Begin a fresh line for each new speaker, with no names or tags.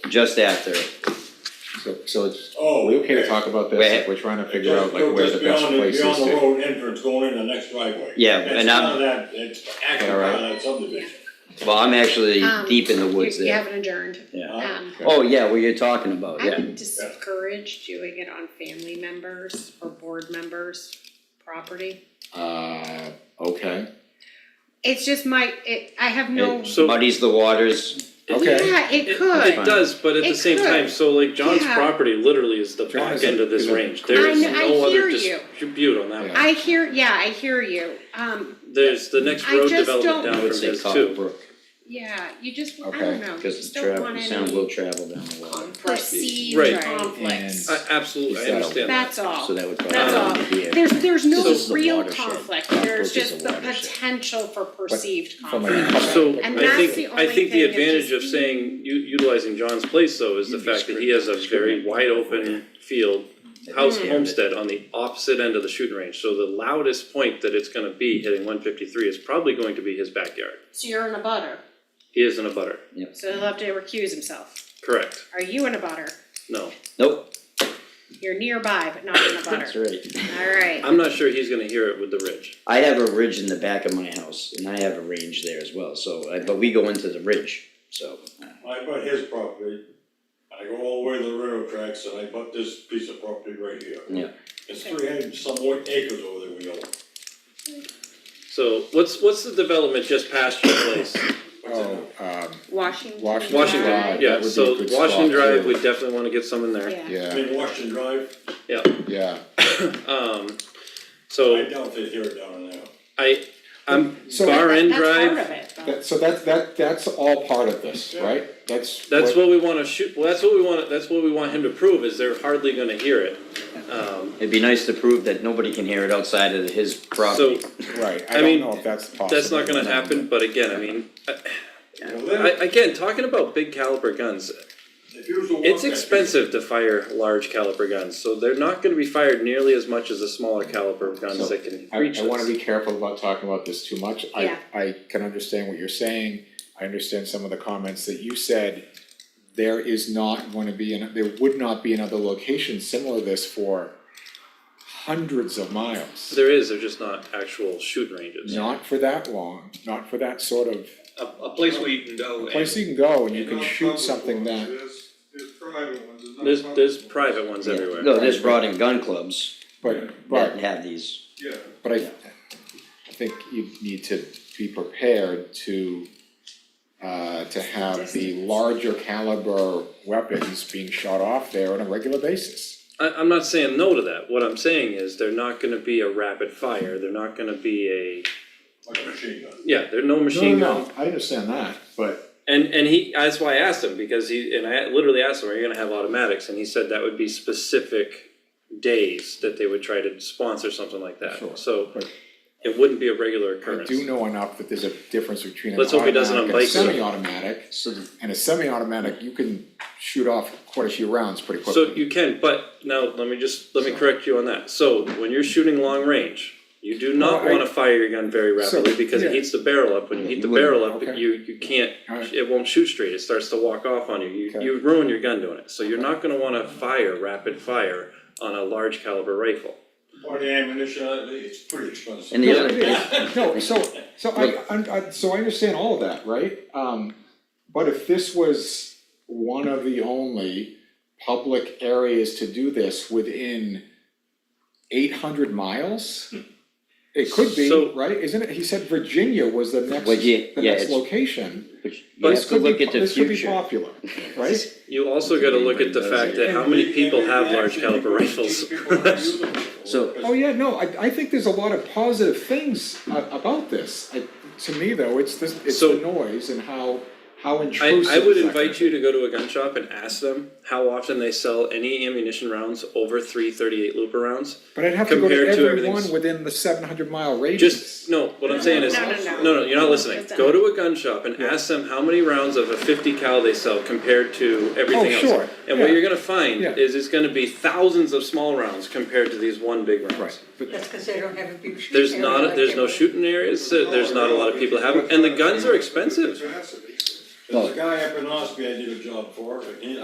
just after.
So, so it's,
Oh,
we okay to
okay.
talk about this,
Wait.
like, we're trying to figure out like
Just-
where
just
the best
beyond the-
place is
Beyond the
to,
road entrance going in the next driveway.
Yeah,
That's
and I'm-
none of that, it's acting
All right.
on that subdivision.
Well, I'm actually
Um,
deep in the woods
You- You
there.
haven't adjourned.
Yeah.
Huh?
Um,
Okay.
Oh, yeah, what you're talking about,
I
yeah.
would discourage doing it on family members or board members' property.
uh, okay,
It's just my, it, I have no,
It
So-
muddies the waters.
okay.
yeah, it could.
It does, but at the
It
same
could.
time, so like John's
Yeah.
property literally is the
John
back
is
end
a-
of this
is a-
range, there is
I kn- I
no
hear
other
you.
dispute on that one.
I hear, yeah, I hear you. Um,
There's the next
I
road
just don't-
I
development down from
would say
this
Copper
too.
Brook,
yeah, you just, I
Okay,
don't know, you
because
just
the
don't
travel,
want
the
any.
sound will travel down the water.
perceived
Right. uh,
conflicts.
And-
I absolutely,
Is that
I
a-
understand that.
That's all.
So that would
That's all.
probably be it.
There's, there's no
This is a
real
watershed.
conflict,
Copper
there's
Brook is a
just the
watershed.
potential for perceived
From
conflict.
a.
So
And
I
that's
think,
the
I
only
think
thing
the
that
advantage of
just-
saying, u- utilizing John's place though is the
You'd be
fact that he
screwed.
has a very
Screwed.
wide open field, house
Hmm.
Mm.
Mm-hmm.
homestead on the opposite end of the shooting range. So the loudest point that it's gonna be hitting one fifty-three is probably going to be his backyard.
So you're in a butter,
He isn't a butter,
so he'll have to recuse himself.
correct?
Are you in a butter?
No.
Nope,
You're nearby, but not in a
that's
butter.
right.
Alright,
I'm not sure he's gonna hear it with the ridge.
I have a ridge in the back of my house, and I have a range there as well, so, I- but we go into the ridge, so.
I bought his property, I go all the way to the railroad tracks, and I bought this piece of property right here.
Yeah.
It's three hundred some odd acres over there we own.
So what's, what's the development just past your place?
What's it
Oh,
now?
um,
Washington.
Washington
Washington
Drive.
Drive,
that would
yeah,
be a
so
good spot,
Washington Drive,
too.
we definitely wanna get someone there.
Yeah,
I
yeah,
mean, Washington Drive,
yeah,
Um,
I
so
doubt they hear it down there.
I, I'm
So-
bar end
that's part
drive,
of it, though.
that, so that, that, that's all part of this, right? That's.
that's what we wanna shoot, well, that's what we wanna, that's what we want him to prove, is they're hardly gonna hear it. Um,
It'd be nice to prove that nobody can hear it outside of his
so
property.
Right, I
I
don't
mean,
know if that's possible.
that's not
or
gonna happen, but again, I mean, I-
Well,
I,
then,
again, talking about big caliber guns,
if you was to walk
It's
that piece-
expensive to fire large caliber guns, so they're not gonna be fired nearly as much as the smaller caliber
So,
guns that can
I,
reach
I wanna
us.
be careful about talking about this too much, I,
Yeah.
I can understand what you're saying, I understand some of the comments that you said. There is not gonna be, an- there would not be another location similar to this for hundreds of miles.
There is, they're just not actual shoot ranges.
Not for that long, not for that sort of,
a, a place where you can go and.
place you can go and you can
Not
shoot
public
something
ones,
that,
There's, there's private ones, there's not
There's,
public
there's
ones.
private ones everywhere.
No, there's rod and gun clubs
but,
that
but
have these,
Yeah.
But I, I think you need to be prepared to, uh, to have the larger caliber weapons being shot off there on a regular basis.
I, I'm not saying no to that, what I'm saying is they're not gonna be a rapid fire, they're not gonna be a,
Like a machine gun.
yeah, they're no machine gun.
I understand that, but.
And, and he, that's why I asked him, because he, and I literally asked him, are you gonna have automatics, and he said that would be specific days that they would try to sponsor something like
Sure.
that, so.
But-
It wouldn't be a regular
I
occurrence.
do know enough that there's a difference between an
Let's hope he doesn't
automatic and a
unbike you.
semi-automatic,
so the-
and a semi-automatic, you can shoot off quite a few rounds pretty quickly.
So you can, but now let me just, let me correct you on that. So when you're shooting long range, you do not
Well, I-
wanna fire your gun very
So,
rapidly because it
yeah.
heats the barrel up. When you heat the
you wouldn't,
barrel up,
okay.
you, you can't,
Alright.
it won't shoot straight. It starts to walk off on you. You,
Okay.
you ruin your gun doing it. So you're not gonna wanna fire rapid fire on a large caliber rifle.
Or the ammunition, uh, it's pretty expensive.
And the
No,
other-
it is. No, so, so I, I'm- I, so I understand all of that, right? Um, but if this was one of the only public areas to do this within eight hundred miles, it could be,
So-
right? Isn't it, he said Virginia was the next,
Virgi-
the
yeah,
next
it's-
location.
but you have to look at the
This could be,
future.
pop- this could be popular, right?
You also gotta look at the fact that how many people have large caliber rifles?
So-
Oh, yeah, no, I, I think there's a lot of positive things a- about this. I, to me, though, it's this, it's
So-
the noise and how, how
I,
intrusive.
I would
that
invite
can
you to go to a gun shop and ask them how often they sell any ammunition rounds over three 38 looper rounds.
But I'd have to go to
compared to
every
everything's-
one within the seven hundred mile radius.
Just no. What I'm saying is
No, no, no.
you're not listening.
That's
Go to a gun shop and ask them how many rounds of a 50 cal they sell compared to everything
Oh,
else.
sure.
And what
Yeah.
you're going to find
Yeah.
is it's going to be thousands of small rounds compared to these one big rounds.
Right, but,
That's because they don't have a big shooting
There's
area
not
like
there's
they
no
would.
shooting areas. so there's not a lot of people have them, and the guns are expensive.
It has to be.
There's a guy up in Ospey I did a job for, and he,